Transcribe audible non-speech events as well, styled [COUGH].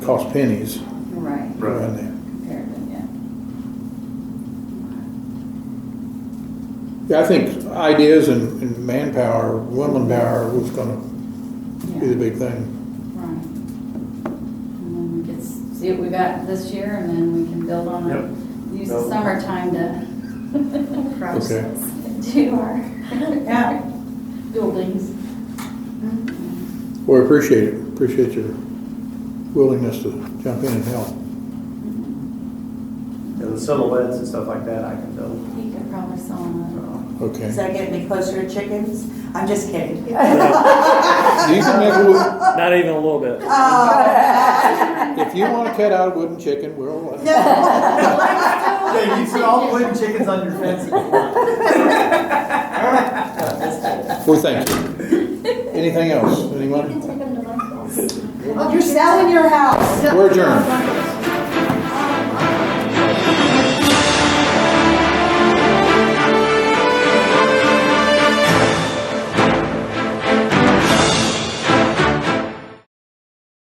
cost pennies Right, around there. compared to, Yeah, yeah. I think ideas and and manpower, woman power was gonna be the Yeah, big thing. right. And then we could s- see what we got this year and then we can build on it. Use the Nope. summertime [LAUGHS] to Okay. [LAUGHS] do our Yeah, [LAUGHS] buildings. Well, I appreciate it, appreciate your willingness to jump in and help. And the silhouettes and stuff like that, I can build. You could probably sell them. Okay. does that get me closer to chickens? I'm just [LAUGHS] kidding. Do you can make a wood- Not even a little bit. Oh. If you wanna cut out a wooden chicken, uh, we're all. Yeah, you can all put chickens on your fence if you [LAUGHS] want. Well, thank you. Anything else, anyone? You're selling your house. We're adjourned.